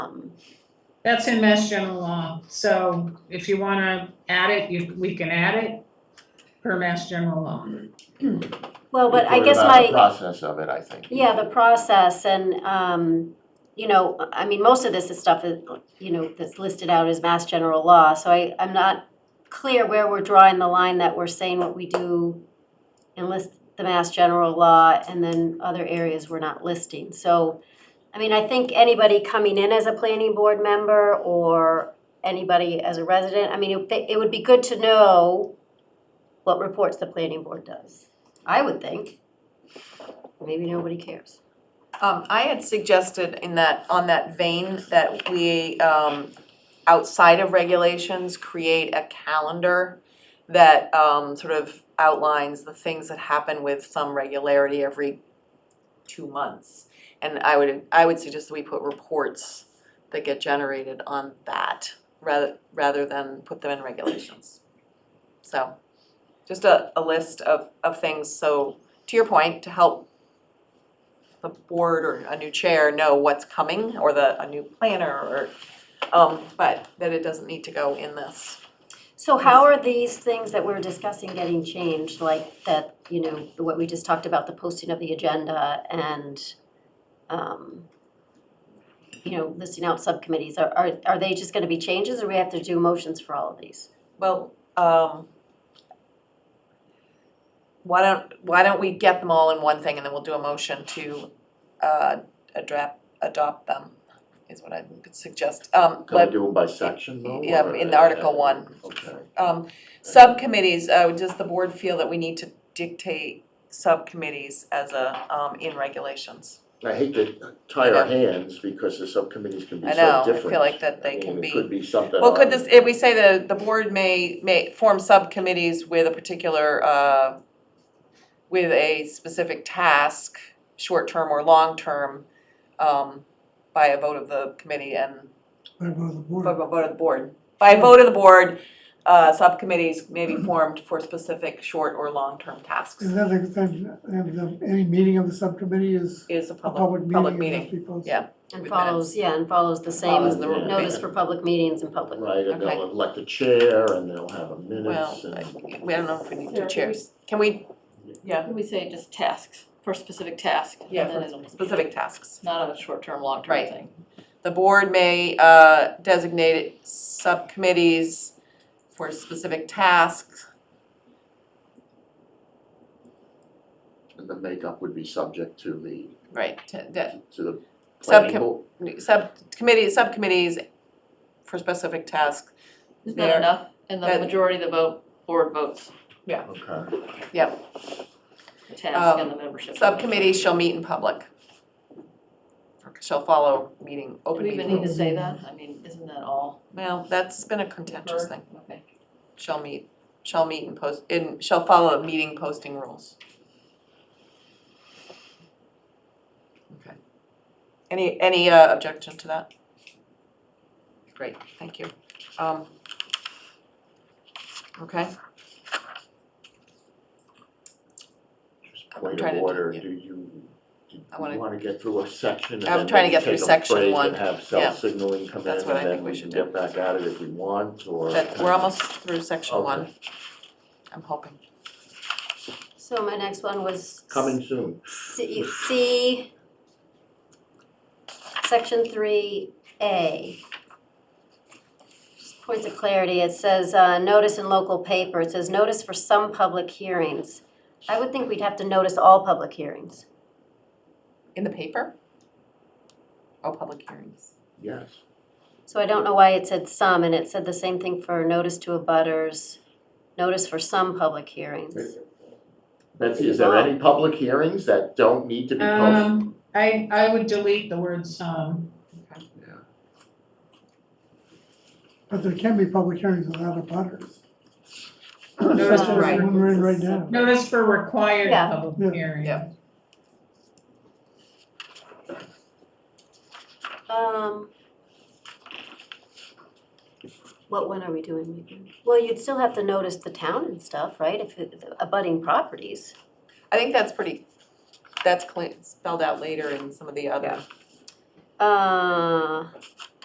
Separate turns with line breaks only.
Um,
That's in Mass General Law, so if you wanna add it, you, we can add it per Mass General Law.
Well, but I
What
guess
about
my,
the Process of it, I think.
yeah, the process and, um, you know, I mean, most of this is stuff that, you know, that's listed out as mass general law, so I, I'm not clear where we're drawing the line that we're saying what we do and list the mass general law and then other areas we're not listing. So, I mean, I think anybody coming in as a planning board member or anybody as a resident, I mean, it, it would be good to know what reports the planning board does, I would think. Maybe nobody cares.
Um, I had suggested in that, on that vein, that we, um, outside of regulations, create a calendar that, um, sort of outlines the things that happen with some regularity every two months. And I would, I would suggest that we put reports that get generated on that, rather, rather than put them in regulations. So, just a, a list of, of things, so, to your point, to help the board or a new chair know what's coming, or the, a new planner, or, um, but that it doesn't need to go in this.
So how are these things that we're discussing getting changed, like that, you know, what we just talked about, the posting of the agenda and, um, you know, listing out subcommittees, are, are, are they just gonna be changes or we have to do motions for all of these?
Well, um, why don't, why don't we get them all in one thing and then we'll do a motion to, uh, adopt, adopt them, is what I could suggest. Um,
Can we
but,
do them by section though?
Yeah,
or-
in the Article one.
Okay.
um, subcommittees, uh, does the board feel that we need to dictate subcommittees as a, um, in regulations?
I hate to tie our hands because the subcommittees can be
I
so
know, I
different.
feel like that they
I mean,
can be-
It could be something.
Well, could
on-
this, if we say the, the board may, may form subcommittees with a particular, uh, with a specific task, short-term or long-term, um, by a vote of the committee and,
By vote of the
by a
board.
vote of the board. By a vote of the board, uh, subcommittees may be formed for specific short or long-term tasks
And then the, then, and the, any meeting of the subcommittee is
is a
a
public,
public
public
meeting, it
meeting.
must be posted.
yeah.
And
With
follows,
minutes.
yeah, and follows the same
Follows the rule.
notice for public meetings and public.
Right, and
Okay.
they'll elect a chair and they'll have a minutes
Well,
and.
I- we don't know if we need two
Sure.
chairs. Can we, yeah,
Can we say just tasks, for specific task? and
Yeah,
then
for
it'll-
specific tasks?
Not on a short-term, long-term
Right.
thing.
The board may uh, designate subcommittees for specific tasks.
And the makeup would be subject to the,
Right. to- de-
to the planning
Subcom-
board.
Subcommittee, subcommittees for specific tasks.
Isn't
There.
that enough? And the
That-
majority of the vote, board votes,
Okay,
the task
Um,
and the membership.
Subcommittees shall meet in public. Shall follow meeting,
Do
open
we even
meeting.
need to say that? I mean, isn't that all?
Well, that's been a contentious thing.
Okay.
Shall meet, shall meet and post, in, shall follow meeting posting rules. Okay. Any, any uh, objection to that? Great, thank you. Um, Okay,
just
I'm
point
trying to
of
do-
order,
yeah.
do you, do you
I wanna-
wanna get through a section and
I'm
then
trying to
maybe
get through
take a
section
break
one.
and have
Yeah.
self-signaling come in
That's what I
and
think
then
we
we can
should
get back at it if we want or.
that, we're almost through section
Okay.
one, I'm hoping.
So my next one was.
Coming soon.
C, C, section three A. Just Points of clarity, it says, uh, notice in local paper, it says notice for some public hearings. I would think we'd have to notice all public hearings.
In the paper? Oh, public hearings.
Yes.
So I don't know why it said some, and it said the same thing for notice to abutters, notice for some public hearings.
Betsy, is there any public hearings that don't need to be posted?
Um, I, I would delete the um, word some.
Yeah.
But there can be public hearings without a butters.
Notice
Such as
right.
the one we're in right now.
Notice for required
Yeah.
Yeah.
public hearing.
Yeah.
Um, what one are we doing? Megan? Well, you'd still have to notice the town and stuff, right, if it, abutting properties.
I think that's pretty, that's clean, spelled out later in some of the other
Uh,